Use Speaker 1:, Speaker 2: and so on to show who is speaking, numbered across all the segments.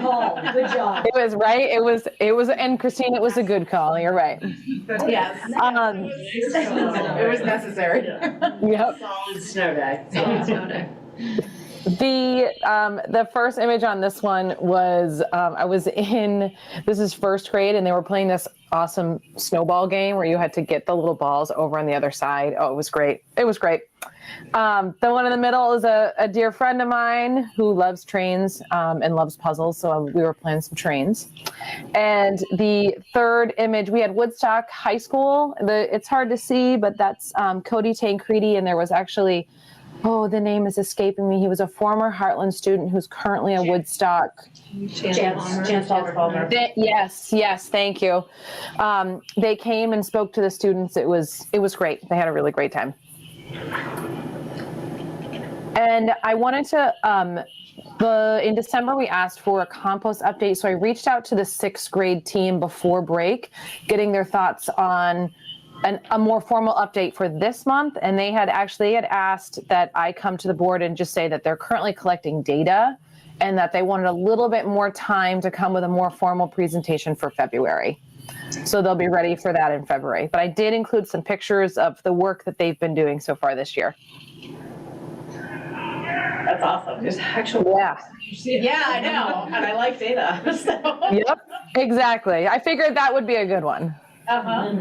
Speaker 1: call. Good job.
Speaker 2: It was right. It was, it was, and Christine, it was a good call. You're right.
Speaker 3: Yes,
Speaker 2: Um,
Speaker 3: it was necessary.
Speaker 2: yep.
Speaker 4: Solid snow day.
Speaker 2: The um, the first image on this one was um, I was in this is first grade and they were playing this awesome snowball game where you had to get the little balls over on the other side. Oh, it was great! It was great. Um, the one in the middle is a, a dear friend of mine who loves trains um, and loves puzzles, so we were playing some trains. And the third image we had Woodstock High School. The it's hard to see, but that's um, Cody Tancredi, and there was actually oh, the name is escaping me. He was a former Heartland student who's currently a Woodstock.
Speaker 1: Chance, Chance Palmer.
Speaker 2: Th- yes, yes, thank you. Um, they came and spoke to the students. It was it was great. They had a really great time. And I wanted to um, the in December we asked for a compost update, so I reached out to the sixth grade team before break, getting their thoughts on an, a more formal update for this month. And they had actually had asked that I come to the board and just say that they're currently collecting data and that they wanted a little bit more time to come with a more formal presentation for February. So they'll be ready for that in February. But I did include some pictures of the work that they've been doing so far this year.
Speaker 4: That's awesome. There's actual.
Speaker 2: Yeah.
Speaker 4: Yeah, I know, and I like data, so.
Speaker 2: Yep. Exactly. I figured that would be a good one.
Speaker 4: Uh-huh.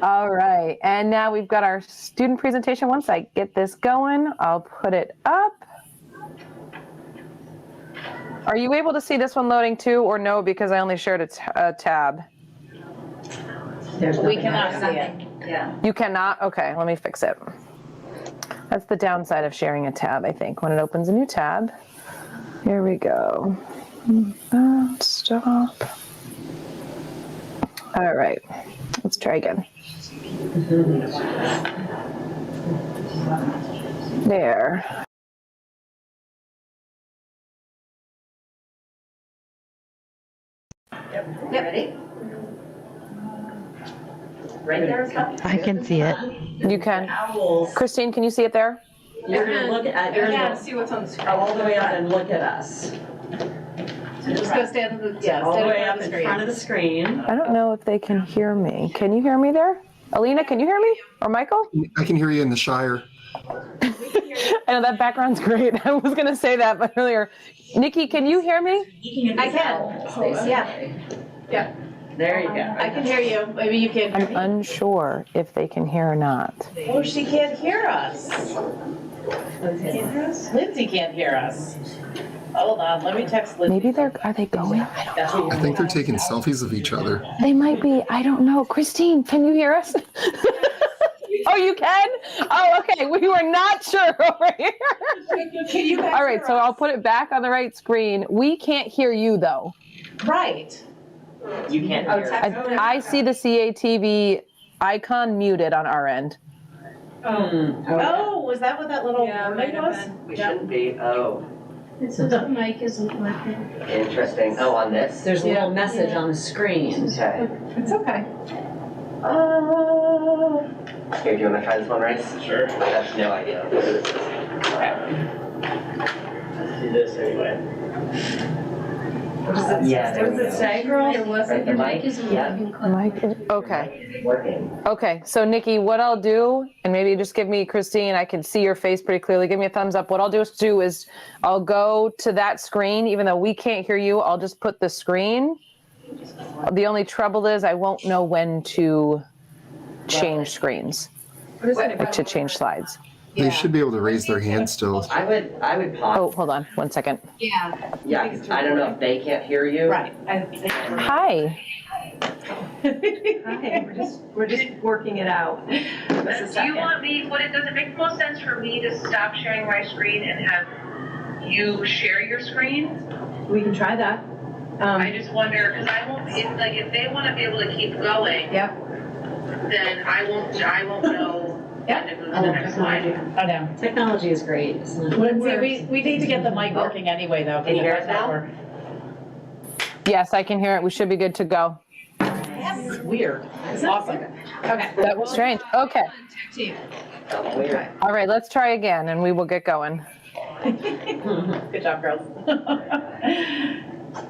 Speaker 2: All right. And now we've got our student presentation. Once I get this going, I'll put it up. Are you able to see this one loading too or no? Because I only shared a, t- a tab.
Speaker 3: We cannot see it.
Speaker 2: You cannot? Okay, let me fix it. That's the downside of sharing a tab, I think, when it opens a new tab. Here we go. Uh, Stop. All right, let's try again. There.
Speaker 4: Right there.
Speaker 5: I can see it.
Speaker 2: You can.
Speaker 4: Owls.
Speaker 2: Christine, can you see it there?
Speaker 4: You're gonna look at, you're gonna
Speaker 3: see what's on the screen.
Speaker 4: go all the way up and look at us.
Speaker 3: Just go stand in the, yeah,
Speaker 4: All the
Speaker 3: stand
Speaker 4: way
Speaker 3: in
Speaker 4: up
Speaker 3: the
Speaker 4: in front
Speaker 3: screen.
Speaker 4: of the screen.
Speaker 2: I don't know if they can hear me. Can you hear me there? Alina, can you hear me? Or Michael?
Speaker 6: I can hear you in the Shire.
Speaker 2: I know that background's great. I was going to say that earlier. Nikki, can you hear me?
Speaker 3: I can, Oh, yeah,
Speaker 4: There you go.
Speaker 3: I can hear you, maybe you can.
Speaker 2: I'm unsure if they can hear or not.
Speaker 3: Oh, she can't hear us.
Speaker 4: Lindsay can't hear us. Hold on, let me text Lindsay.
Speaker 2: Maybe they're, are they going? I don't know.
Speaker 6: I think they're taking selfies of each other.
Speaker 2: They might be. I don't know. Christine, can you hear us? oh, you can? Oh, okay. We were not sure over here.
Speaker 3: Can you guys
Speaker 2: All right.
Speaker 3: hear
Speaker 2: So
Speaker 3: us?
Speaker 2: I'll put it back on the right screen. We can't hear you, though.
Speaker 3: Right.
Speaker 4: You can't
Speaker 3: Oh,
Speaker 4: hear. us.
Speaker 2: I, I see the CATV icon muted on our end.
Speaker 4: Hmm,
Speaker 3: Oh, was that what that little
Speaker 7: Yeah,
Speaker 3: warning
Speaker 7: might have
Speaker 3: was?
Speaker 7: been.
Speaker 4: We shouldn't be, oh,
Speaker 7: It says the mic isn't working.
Speaker 4: interesting. Oh, on this?
Speaker 8: There's a little message on the screen.
Speaker 4: Okay.
Speaker 3: It's okay. Uh,
Speaker 4: Here, do you wanna try this one, Race? Sure. I have no idea. Let's do this anyway.
Speaker 3: What does it-
Speaker 4: Yeah, there
Speaker 3: What does
Speaker 4: we
Speaker 3: it
Speaker 4: go.
Speaker 3: say, girl?
Speaker 7: It wasn't,
Speaker 4: the
Speaker 7: your
Speaker 4: mic?
Speaker 7: mic isn't
Speaker 4: Yeah.
Speaker 7: working.
Speaker 2: Mike, okay.
Speaker 4: Working.
Speaker 2: Okay, so Nikki, what I'll do, and maybe just give me Christine, I can see your face pretty clearly. Give me a thumbs up. What I'll do is do is I'll go to that screen, even though we can't hear you. I'll just put the screen. The only trouble is I won't know when to change screens or to change slides.
Speaker 3: Yeah.
Speaker 6: They should be able to raise their hand still.
Speaker 4: I would, I
Speaker 2: Oh,
Speaker 4: would pause,
Speaker 2: hold on, one second.
Speaker 3: Yeah,
Speaker 4: yeah, 'cause I don't know if they can't hear you.
Speaker 3: Oh. right. I think we're-
Speaker 2: Hi.
Speaker 3: Hi, We're just, we're just working it out. Just a
Speaker 9: Do you
Speaker 3: second.
Speaker 9: want me, what it, does it make the most sense for me to stop sharing my screen and have you share your screen?
Speaker 3: We can try that.
Speaker 9: I
Speaker 3: Um,
Speaker 9: just wonder, because I won't, if, like, if they want to be able to keep going,
Speaker 3: Yep.
Speaker 9: then I won't, I won't know when to move to
Speaker 8: Oh,
Speaker 9: the next slide.
Speaker 3: I know.
Speaker 8: Technology is great, isn't it?
Speaker 3: Lindsay, we, we need to get the mic working anyway, though. 'cause
Speaker 4: Can you hear us
Speaker 3: otherwise
Speaker 4: now?
Speaker 3: we're-
Speaker 2: Yes, I can hear it. We should be good to go.
Speaker 4: It's weird.
Speaker 3: It's awesome. Okay.
Speaker 2: That was strange. Okay.
Speaker 4: It's weird.
Speaker 2: All right, let's try again and we will get going.
Speaker 3: Good job, girls.